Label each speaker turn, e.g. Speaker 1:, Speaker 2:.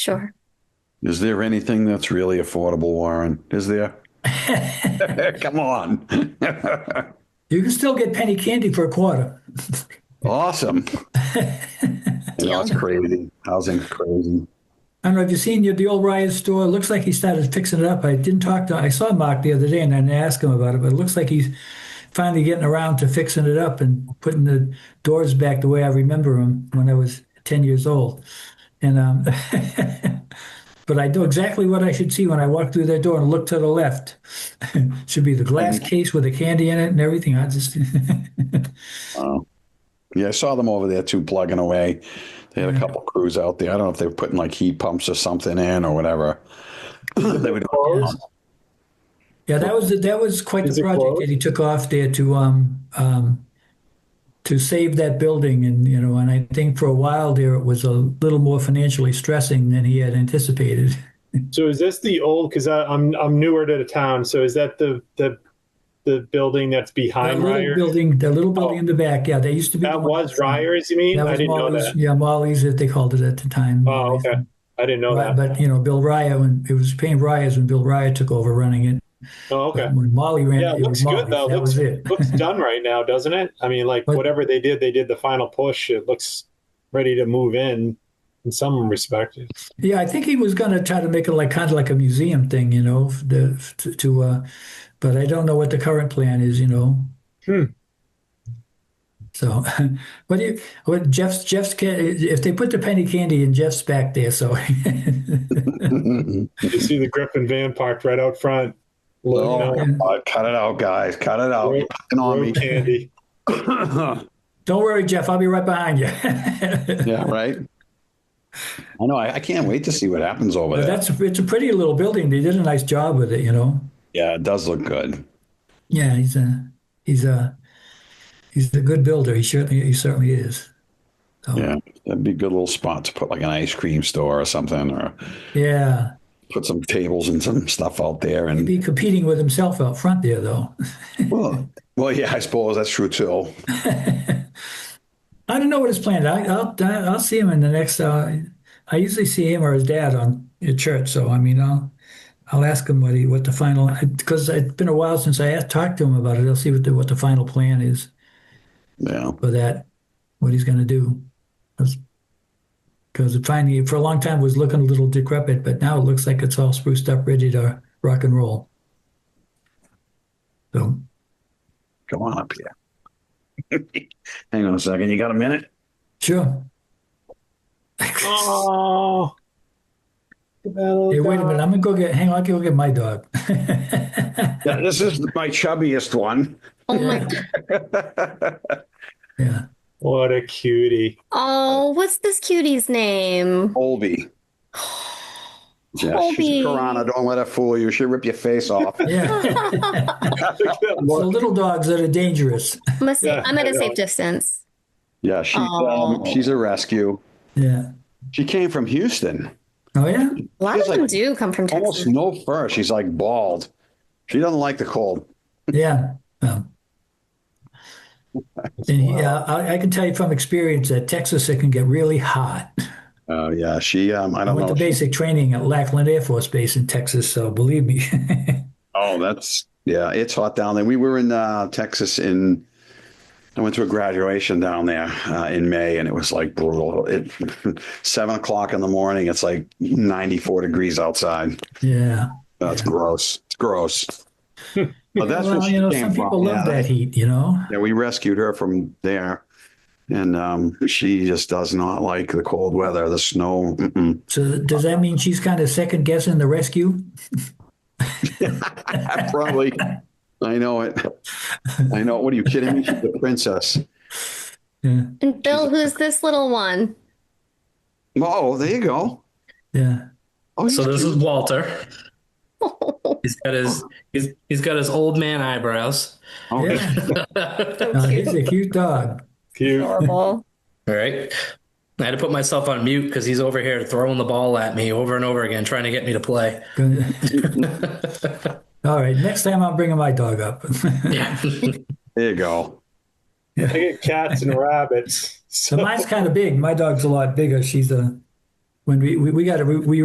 Speaker 1: Sure.
Speaker 2: Is there anything that's really affordable, Warren? Is there? Come on.
Speaker 3: You can still get penny candy for a quarter.
Speaker 2: Awesome. You know, it's
Speaker 1: Deal.
Speaker 2: crazy. Housing's crazy.
Speaker 3: I don't know if you've seen the old Riot store. It looks like he started fixing it up. I didn't talk to. I saw Mark the other day and I didn't ask him about it, but it looks like he's finally getting around to fixing it up and putting the doors back the way I remember them when I was ten years old. And um, but I know exactly what I should see when I walk through that door and look to the left. should be the glass case with the candy in it and everything. I just
Speaker 2: Yeah, I saw them over there too, plugging away. They had a couple crews out there. I don't know if they were putting like heat pumps or something in or whatever. They were doing-
Speaker 3: Yeah, that was that was quite
Speaker 4: Is
Speaker 3: the
Speaker 4: it
Speaker 3: project
Speaker 4: closed?
Speaker 3: that he took off there to um um to save that building and you know and I think for a while there it was a little more financially stressing than he had anticipated.
Speaker 4: So is this the old? Because I'm I'm newer to the town. So is that the the the building that's
Speaker 3: That
Speaker 4: behind
Speaker 3: little
Speaker 4: Ryer's?
Speaker 3: building, that little building
Speaker 4: Oh.
Speaker 3: in the back, yeah, that used to be the
Speaker 4: That
Speaker 3: one-
Speaker 4: was Ryer's. You mean?
Speaker 3: That
Speaker 4: I
Speaker 3: was
Speaker 4: didn't know
Speaker 3: Molly's,
Speaker 4: that.
Speaker 3: yeah, Molly's that they called it at the time.
Speaker 4: Oh, okay. I didn't know
Speaker 3: Right,
Speaker 4: that.
Speaker 3: but you know, Bill Ryan when it was Payne Ryan's when Bill Ryan took over running it.
Speaker 4: Oh, okay.
Speaker 3: When Molly ran
Speaker 4: Yeah,
Speaker 3: it,
Speaker 4: it
Speaker 3: it
Speaker 4: looks
Speaker 3: was Molly's.
Speaker 4: good though.
Speaker 3: That
Speaker 4: Looks
Speaker 3: was it.
Speaker 4: looks done right now, doesn't it? I mean, like
Speaker 3: But-
Speaker 4: whatever they did, they did the final push. It looks ready to move in in some respect.
Speaker 3: Yeah, I think he was going to try to make it like kind of like a museum thing, you know, f- the f- to, to uh, but I don't know what the current plan is, you know.
Speaker 4: Hmm.
Speaker 3: So, what do you, what Jeff's Jeff's ca- if they put the penny candy in Jeff's back there, so
Speaker 4: You see the Griffin van parked right out front. Loading
Speaker 2: Oh,
Speaker 4: up
Speaker 2: my God. cut it out, guys. Cut it out. You're picking on me.
Speaker 4: road candy.
Speaker 3: don't worry, Jeff, I'll be right behind you.
Speaker 2: Yeah, right? I know. I, I can't wait to see what happens over
Speaker 3: But
Speaker 2: there.
Speaker 3: that's it's a pretty little building. They did a nice job with it, you know.
Speaker 2: Yeah, it does look good.
Speaker 3: Yeah, he's a he's a he's a good builder. He certainly he certainly is.
Speaker 2: Yeah, that'd be a good little spot to put like an ice cream store or something, or
Speaker 3: Yeah.
Speaker 2: put some tables and some stuff out there. And
Speaker 3: be competing with himself out front there, though.
Speaker 2: well, well, yeah, I suppose that's true too.
Speaker 3: I don't know what his plan. I, I'll I'll see him in the next. Uh, I usually see him or his dad on at church, so I mean, I'll I'll ask him what he what the final because it's been a while since I asked, talked to him about it. I'll see what the what the final plan is
Speaker 2: Yeah,
Speaker 3: for that, what he's going to do, because finally for a long time it was looking a little decrepit, but now it looks like it's all spruced up, ready to rock and roll. So
Speaker 2: come on up here. Hang on a second. You got a minute?
Speaker 3: sure.
Speaker 4: Oh. Look at that little
Speaker 3: Hey, wait a
Speaker 4: guy.
Speaker 3: minute. I'm gonna go get. Hang on, I'll go get my dog.
Speaker 2: Yeah, this is my chubbiest one.
Speaker 1: Oh my.
Speaker 3: yeah.
Speaker 4: What a cutie.
Speaker 1: Oh, what's this cutie's name?
Speaker 2: Colby. Yeah, she's
Speaker 1: Colby.
Speaker 2: a piranha. Don't let her fool you. She'll rip your face off.
Speaker 3: Yeah.
Speaker 4: Look at that
Speaker 3: so
Speaker 4: look.
Speaker 3: little dogs that are dangerous.
Speaker 1: I'm, a sa-
Speaker 4: Yeah,
Speaker 1: I'm at
Speaker 4: I
Speaker 1: a
Speaker 4: know.
Speaker 1: safe distance.
Speaker 2: Yeah, she's um,
Speaker 1: Oh.
Speaker 2: she's a rescue.
Speaker 3: Yeah.
Speaker 2: She came from Houston.
Speaker 3: Oh yeah.
Speaker 1: A lot
Speaker 2: Feels
Speaker 1: of them
Speaker 2: like
Speaker 1: do come from Texas.
Speaker 2: Almost no fur. She's like bald. She doesn't like the cold.
Speaker 3: Yeah. Um, and yeah, I, I can tell you from experience that Texas it can get really hot.
Speaker 2: Oh yeah, she. Um, I
Speaker 3: I
Speaker 2: don't
Speaker 3: went
Speaker 2: know.
Speaker 3: to basic training at Lackland Air Force Base in Texas, so believe me.
Speaker 2: Oh, that's yeah, it's hot down there. We were in uh, Texas in I went to a graduation down there uh, in May, and it was like brutal. It seven o'clock in the morning. It's like ninety four degrees outside.
Speaker 3: yeah.
Speaker 2: That's gross. It's gross. But that's
Speaker 3: well,
Speaker 2: where
Speaker 3: you
Speaker 2: she
Speaker 3: know,
Speaker 2: came
Speaker 3: some
Speaker 2: from.
Speaker 3: people
Speaker 2: yeah,
Speaker 3: love that heat, you know.
Speaker 2: Yeah, we rescued her from there, and um, she just does not like the cold weather, the snow. Mm-mm.
Speaker 3: So does that mean she's kind of second guessing the rescue?
Speaker 2: Probably. I know it. I know. it. What are you kidding me? She's a princess.
Speaker 3: Yeah.
Speaker 1: And Bill, who's this little one?
Speaker 2: Oh, there you go.
Speaker 3: Yeah.
Speaker 2: Oh,
Speaker 5: So
Speaker 2: he's
Speaker 5: this is Walter.
Speaker 1: Oh,
Speaker 5: He's got his he's he's got his old man eyebrows.
Speaker 2: Oh,
Speaker 3: Yeah.
Speaker 5: All
Speaker 3: No, he's a cute dog.
Speaker 4: Cute.
Speaker 1: adorable.
Speaker 5: right. I had to put myself on mute because he's over here throwing the ball at me over and over again, trying to get me to play.
Speaker 3: All right, next time I'm bringing my dog up.
Speaker 5: Yeah.
Speaker 2: there you go.
Speaker 4: I get cats and rabbits.
Speaker 3: so mine's kind of big. My dog's a lot bigger. She's a when we, we, we got to, we